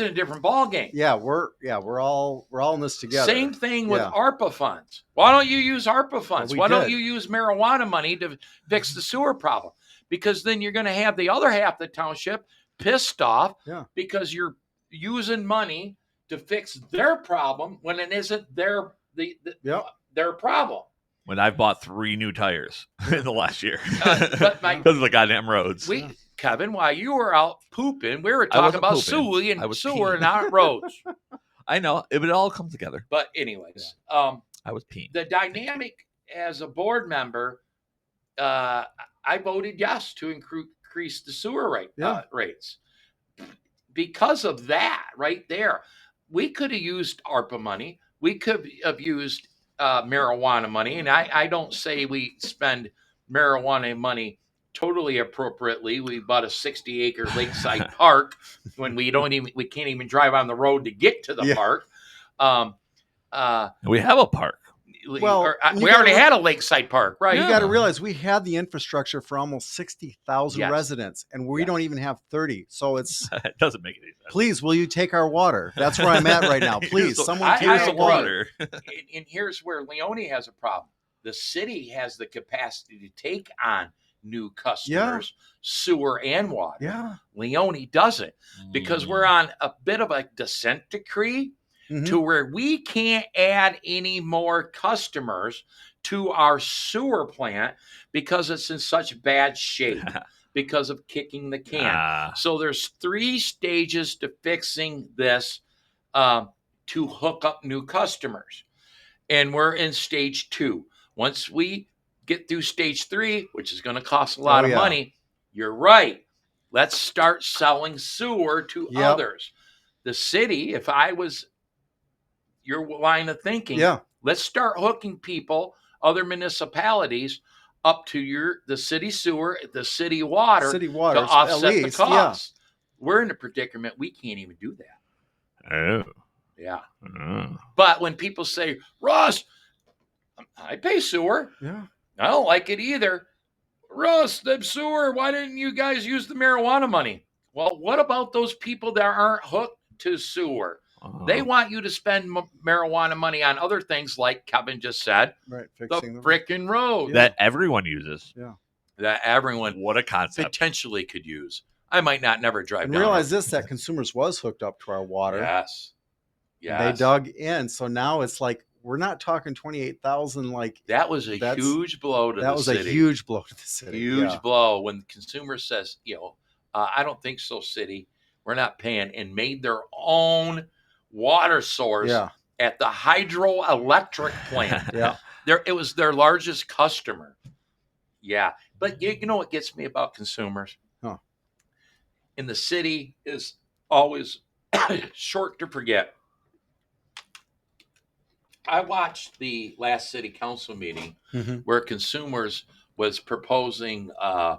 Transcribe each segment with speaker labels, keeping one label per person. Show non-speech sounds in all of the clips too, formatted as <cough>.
Speaker 1: in a different ballgame.
Speaker 2: yeah, we're yeah, we're all we're all in this together.
Speaker 1: Same thing with
Speaker 2: Yeah.
Speaker 1: ARPA funds. Why don't you use ARPA funds?
Speaker 2: we
Speaker 1: Why don't
Speaker 2: did.
Speaker 1: you use marijuana money to fix the sewer problem? Because then you're going to have the other half of the township pissed off
Speaker 2: Yeah.
Speaker 1: because you're using money to fix their problem when it isn't their the, the-
Speaker 2: Yep.
Speaker 1: their
Speaker 3: <laughs>
Speaker 1: problem.
Speaker 3: When I've bought three new tires <laughs> in the last year
Speaker 1: <laughs> Uh,
Speaker 3: <laughs> because
Speaker 1: but my,
Speaker 3: of the goddamn roads.
Speaker 1: we, Kevin, while you were out pooping, we were
Speaker 3: I
Speaker 1: talking
Speaker 3: wasn't
Speaker 1: about sewer
Speaker 3: pooping. I
Speaker 1: and
Speaker 3: was
Speaker 1: sewer
Speaker 3: peeing.
Speaker 1: and our
Speaker 3: <laughs>
Speaker 1: roads.
Speaker 3: I know it would all come together.
Speaker 1: But anyways, um,
Speaker 3: I was peeing.
Speaker 1: the dynamic as a board member, uh, I voted yes to incre- increase the sewer rate uh,
Speaker 2: Yeah.
Speaker 1: rates because of that right there. We could have used ARPA money. We could have used uh, marijuana money, and I, I don't say we spend marijuana money totally appropriately. We bought a sixty acre lakeside park when we don't even we can't even drive on the road to get to the
Speaker 2: Yeah.
Speaker 1: park. Um, uh,
Speaker 3: We have a park.
Speaker 1: we,
Speaker 2: Well,
Speaker 1: or, uh,
Speaker 2: you
Speaker 1: we
Speaker 2: gotta
Speaker 1: already
Speaker 2: re-
Speaker 1: had a lakeside park, right?
Speaker 2: You
Speaker 3: Yeah.
Speaker 2: got to realize we have the infrastructure for almost sixty thousand
Speaker 1: Yes.
Speaker 2: residents, and we
Speaker 1: Yes.
Speaker 2: don't even have thirty. So
Speaker 1: <laughs>
Speaker 2: it's
Speaker 3: it doesn't make any sense.
Speaker 2: please, will you take our water? That's where I'm at right now.
Speaker 1: <laughs>
Speaker 3: Here's
Speaker 2: Please,
Speaker 3: the-
Speaker 2: someone
Speaker 1: I-
Speaker 2: take
Speaker 3: Here's
Speaker 1: I
Speaker 2: the
Speaker 3: some
Speaker 1: agree.
Speaker 2: water.
Speaker 3: water.
Speaker 1: And, and here's where Leone has a problem. The city has the capacity to take on new customers, sewer and water.
Speaker 2: Yeah,
Speaker 1: Leone doesn't because we're on a bit of a descent decree
Speaker 2: Mhm.
Speaker 1: to where we can't add any more customers to our sewer plant because it's in such bad shape because of kicking the can.
Speaker 3: Ah,
Speaker 1: So there's three stages to fixing this um, to hook up new customers, and we're in stage two. Once we get through stage three, which is going to cost a lot
Speaker 2: Oh,
Speaker 1: of
Speaker 2: yeah.
Speaker 1: money, you're right. Let's start selling sewer to
Speaker 2: Yep.
Speaker 1: others. The city, if I was your line of thinking,
Speaker 2: yeah,
Speaker 1: let's start hooking people, other municipalities, up to your the city sewer, the city water,
Speaker 2: city
Speaker 1: to
Speaker 2: water
Speaker 1: offset
Speaker 2: at least.
Speaker 1: the
Speaker 2: Yeah,
Speaker 1: cost. We're in a predicament. We can't even do that.
Speaker 3: oh,
Speaker 1: Yeah.
Speaker 3: oh.
Speaker 1: But when people say, Russ, I pay sewer.
Speaker 2: yeah.
Speaker 1: I don't like it either. Russ, the sewer, why didn't you guys use the marijuana money? Well, what about those people that aren't hooked to sewer? They
Speaker 3: Oh.
Speaker 1: want you to spend m- marijuana money on other things, like Kevin just said,
Speaker 2: Right,
Speaker 1: the
Speaker 2: fixing the
Speaker 1: frickin' road
Speaker 3: that everyone uses.
Speaker 1: that everyone
Speaker 3: What a concept.
Speaker 1: potentially could use. I might not never drive
Speaker 2: and
Speaker 1: down.
Speaker 2: realize this that consumers was hooked up to our water.
Speaker 1: Yes.
Speaker 2: They
Speaker 1: Yes.
Speaker 2: dug in, so now it's like we're not talking twenty eight thousand. Like
Speaker 1: That was a
Speaker 2: That's-
Speaker 1: huge blow to
Speaker 2: that
Speaker 1: the
Speaker 2: was
Speaker 1: city.
Speaker 2: a huge blow to the city.
Speaker 1: huge
Speaker 2: yeah.
Speaker 1: blow when the consumer says, you know, uh, I don't think so, city. We're not paying, and made their own water source
Speaker 2: Yeah,
Speaker 1: at the hydroelectric plant. <laughs>
Speaker 2: <laughs> yeah.
Speaker 1: there, it was their largest customer. Yeah, but you, you know what gets me about consumers?
Speaker 2: Huh.
Speaker 1: In the city is always <coughs> short to forget. I watched the last city council meeting
Speaker 2: Mhm.
Speaker 1: where consumers was proposing uh,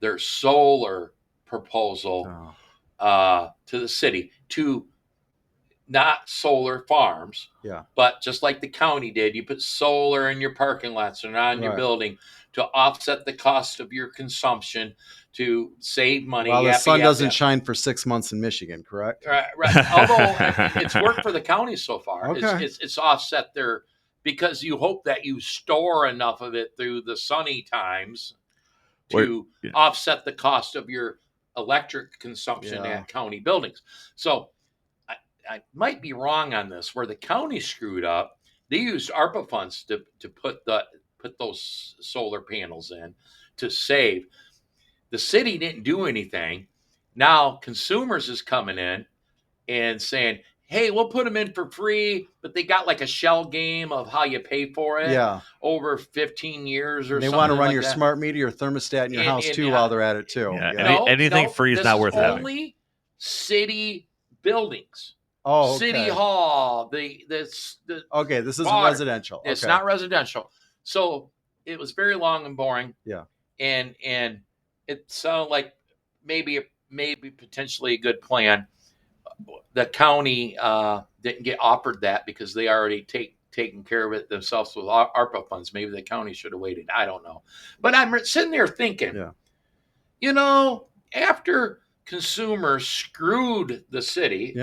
Speaker 1: their solar proposal
Speaker 2: Oh,
Speaker 1: uh, to the city to not solar farms,
Speaker 2: Yeah.
Speaker 1: but just like the county did, you put solar in your parking lots and on your
Speaker 2: Right.
Speaker 1: building to offset the cost of your consumption to save money.
Speaker 2: While the
Speaker 1: yap,
Speaker 2: sun
Speaker 1: yap,
Speaker 2: doesn't
Speaker 1: yap.
Speaker 2: shine for six months in Michigan, correct?
Speaker 1: Right, right. Although it's worked for the county so far. It's,
Speaker 2: Okay.
Speaker 1: it's, it's offset there because you hope that you store enough of it through the sunny times
Speaker 3: Wait,
Speaker 1: to
Speaker 3: yeah.
Speaker 1: offset the cost of your electric consumption
Speaker 2: Yeah.
Speaker 1: at county buildings. So I, I might be wrong on this where the county screwed up. They used ARPA funds to, to put the put those solar panels in to save. The city didn't do anything. Now consumers is coming in and saying, "Hey, we'll put them in for free," but they got like a shell game of how you pay for it
Speaker 2: Yeah.
Speaker 1: over 15 years or
Speaker 2: They
Speaker 1: something
Speaker 2: want to run
Speaker 1: like
Speaker 2: your
Speaker 1: that.
Speaker 2: smart meter, your thermostat in your
Speaker 1: And-
Speaker 2: house
Speaker 1: and,
Speaker 2: too,
Speaker 1: uh,
Speaker 2: while they're at it too.
Speaker 3: yeah,
Speaker 2: Yeah.
Speaker 3: and- anything free is
Speaker 1: this
Speaker 3: not worth having.
Speaker 1: Only city buildings,
Speaker 2: oh,
Speaker 1: city
Speaker 2: okay.
Speaker 1: hall. The this the,
Speaker 2: Okay, this is
Speaker 1: Water.
Speaker 2: residential.
Speaker 1: it's
Speaker 2: okay.
Speaker 1: not residential, so it was very long and boring.
Speaker 2: Yeah.
Speaker 1: and and it sounded like maybe maybe potentially a good plan. The county uh, didn't get offered that because they already take taken care of it themselves with Ar- ARPA funds. Maybe the county should have waited. I don't know, but I'm sitting there thinking,
Speaker 2: Yeah.
Speaker 1: you know, after consumer screwed the city
Speaker 2: Yeah.